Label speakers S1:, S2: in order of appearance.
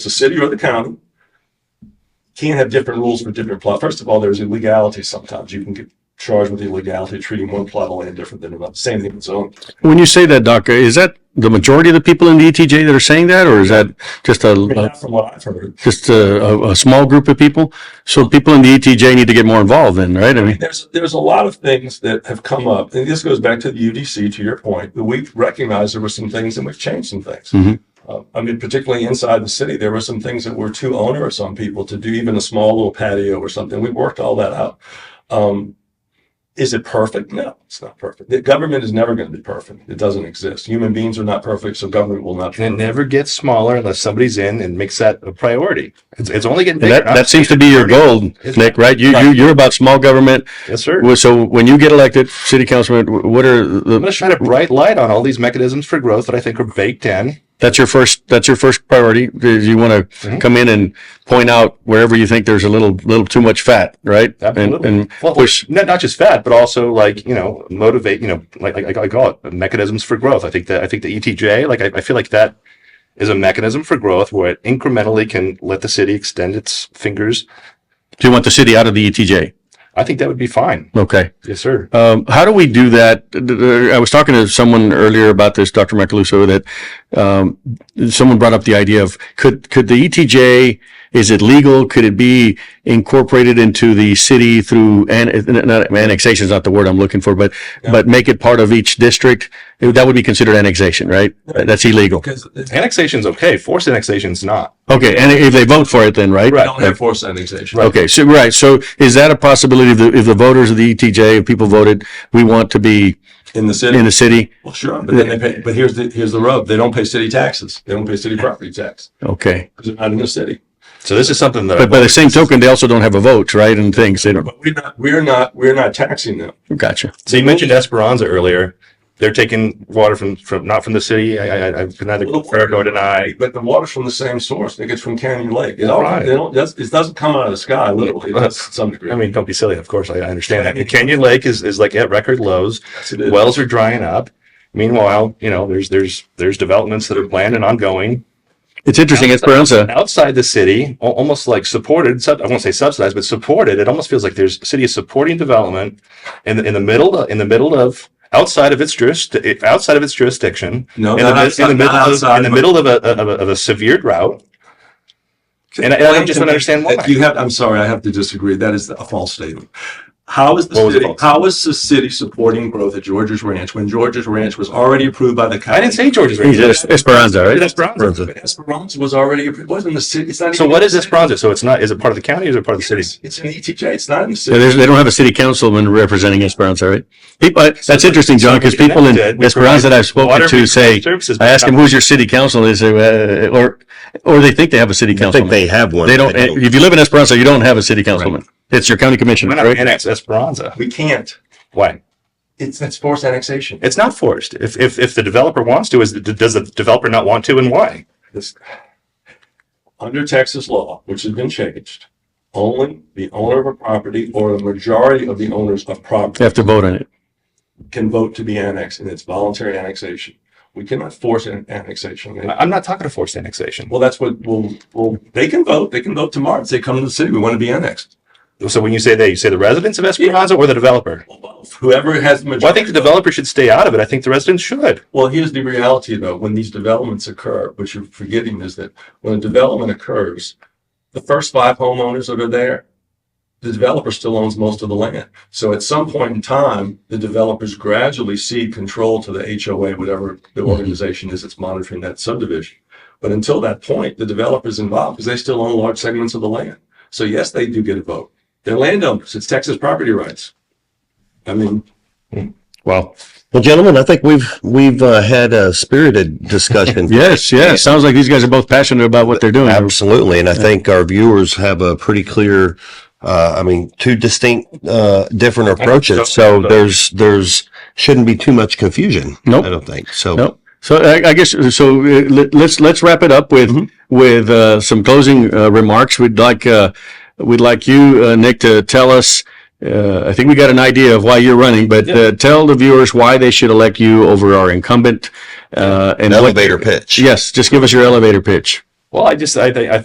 S1: the city or the county can't have different rules for different plot. First of all, there's illegality sometimes. You can get charged with illegality, treating one plot of land different than another. Same thing with zoning.
S2: When you say that, Doc, is that the majority of the people in the ETJ that are saying that, or is that just
S1: I mean,
S2: a,
S1: that's from what I've heard.
S2: just a, a, a small group of people? So people in the ETJ need to get more involved then, right? I mean,
S1: There's, there's a lot of things that have come up, and this goes back to the UDC, to your point, that we've recognized there were some things and we've changed some things.
S2: Mhm.
S1: Uh, I mean, particularly inside the city, there were some things that were too onerous on people to do even a small little patio or something. We worked all that out. Um, is it perfect? No, it's not perfect. The government is never going to be perfect. It doesn't exist. Human beings are not perfect, so government will not. be
S3: And it
S1: perfect.
S3: never gets smaller unless somebody's in and makes that a priority. It's, it's only getting
S2: and
S3: bigger.
S2: that, that seems to be your goal, Nick, right? You, you, you're about small government.
S3: Yes, sir.
S2: Well, So when you get elected, city councilman, wh- what are
S3: I'm going
S2: the,
S3: to shine a bright light on all these mechanisms for growth that I think are baked in.
S2: that's your first, that's your first priority? Is you want to
S3: Mhm.
S2: come in and point out wherever you think there's a little, little too much fat, right? And,
S3: Absolutely.
S2: and
S3: Well,
S2: push,
S3: not, not just fat, but also like, you know, motivate, you know, like, like, like I call it mechanisms for growth. I think that, I think the ETJ, like, I, I feel like that is a mechanism for growth where it incrementally can let the city extend its fingers.
S2: do you want the city out of the ETJ?
S3: I think that would be fine.
S2: Okay.
S3: Yes, sir.
S2: Um, how do we do that? D- d- I was talking to someone earlier about this, Dr. Macaluso, that, um, someone brought up the idea of could, could the ETJ, is it legal? Could it be incorporated into the city through, an, n- not, annexation is not the word I'm looking for, but,
S1: Yeah.
S2: but make it part of each district? It- That would be considered annexation, right?
S1: Right.
S2: That's illegal.
S1: Because they
S3: Annexation's okay. Forced annexation's not.
S2: Okay. And if they vote for it then, right?
S3: Right.
S1: don't have forced annexation.
S2: Okay. So, right. So is that a possibility if the, if the voters of the ETJ, if people voted, we want to be
S1: In the city.
S2: in the city?
S1: Well, sure, but then they pay, but here's the, here's the rub. They don't pay city taxes. They don't pay city property tax
S2: Okay.
S1: because they're not in the city.
S3: So this is something that. I
S2: But by the same token, they also don't have a vote, right? And things they don't.
S1: But we're not, we're not, we're not taxing them.
S2: Gotcha.
S3: So you mentioned Esperanza earlier. They're taking water from, from not from the city. I, I, I can neither confirm nor deny.
S1: But the water's from the same source. It gets from Canyon Lake. It all,
S3: Right.
S1: they don't, that's- it doesn't come out of the sky, literally, It does to some degree.
S3: I mean, don't be silly. Of course, I, I understand that. Canyon Lake is, is like at record lows.
S1: Yes, it is.
S3: Wells are drying up. Meanwhile, you know, there's there's there's developments that are planned and ongoing
S2: It's interesting. Esperanza.
S3: outside the city, al- almost like supported. Sub, I won't say subsidized, but supported. It almost feels like there's the city is supporting development in the, in the middle in the middle of outside of its jurisdiction, outside of its jurisdiction.
S1: No,
S3: in the,
S1: not
S3: mid-
S1: outside,
S3: in the
S1: not
S3: middle
S1: outside.
S3: of, in the
S1: but-
S3: middle of a, of a, of a severe drought. And I, and I just don't understand why.
S1: You have, I'm sorry, I have to disagree. That is a false statement. How is
S3: What
S1: the
S3: was the
S1: city,
S3: false?
S1: how is the city supporting growth at George's Ranch when George's Ranch was already approved by the county?
S3: I didn't say George's
S2: He's
S3: Range.
S2: Es- Esperanza, right?
S3: That's Esperanza.
S1: But Esperanza was already, approved. it wasn't the city, it's not.
S3: So
S1: even-
S3: what is Esperanza? So it's not, is it part of the county or is it part of the city?
S1: It's it's an ETJ, it's not in the
S2: Yeah,
S1: city.
S2: there's- they don't have a city councilman representing Esperanza, right? People, I- that's interesting, John, because people in
S3: Connected, we
S2: Esperanza that I've spoken
S3: Water
S2: to say,
S3: services.
S2: I ask them, who's your city council? They say, uh, or, or they think they have a city councilman.
S4: have one.
S2: They don't, eh, if you live in Esperanza, you don't have a city councilman. It's your county commissioner,
S3: Why not
S2: right?
S3: annex Esperanza?
S1: We can't.
S3: Why?
S1: It's, that's forced annexation.
S3: It's not forced. If, if, if the developer wants to, is, does the developer not want to and why?
S1: This- Under Texas law, which has been changed, only the owner of a property or the majority of the owners of
S2: They
S1: property
S2: have to vote on it.
S1: can vote to be annexed, and it's voluntary annexation. We cannot force an annexation.
S3: I- I'm not talking to forced annexation.
S1: Well, that's what, well, well, they can vote, they can vote tomorrow and say, come to the city, we want to be annexed.
S3: So when you say that, you say the residents of Esperanza or the developer?
S1: Well, both. Whoever has the
S3: Well, I think
S1: majority.
S3: the developer should stay out of it. I think the residents should.
S1: Well, here's the reality though, when these developments occur, what you're forgetting is that when a development occurs, the first five homeowners that are there, the developer still owns most of the land. So at some point in time, the developers gradually cede control to the HOA, whatever the organization is that's monitoring that subdivision. But until that point, the developer's involved because they still own large segments of the land. So yes, they do get a vote. They're landowners. It's Texas property rights. I mean,
S3: Well,
S4: Well, gentlemen, I think we've we've uh, had a spirited discussion.
S2: Yes, yes. Sounds like these guys are both passionate about what they're doing.
S4: Absolutely, and I think our viewers have a pretty clear. Uh, I mean, two distinct, uh, different approaches. So there's there's shouldn't be too much confusion.
S2: Nope.
S4: I don't think so.
S2: Nope. So I, I guess so. Uh, let, let's let's wrap it up with
S4: Mm-hmm.
S2: with uh, some closing uh, remarks. We'd like uh, we'd like you, uh, Nick, to tell us. Uh, I think we got an idea of why you're running, but uh, tell the viewers why they should elect you over our incumbent. Uh, and
S4: An
S2: what-
S4: elevator pitch.
S2: yes, just give us your elevator pitch.
S3: Well, I just I think I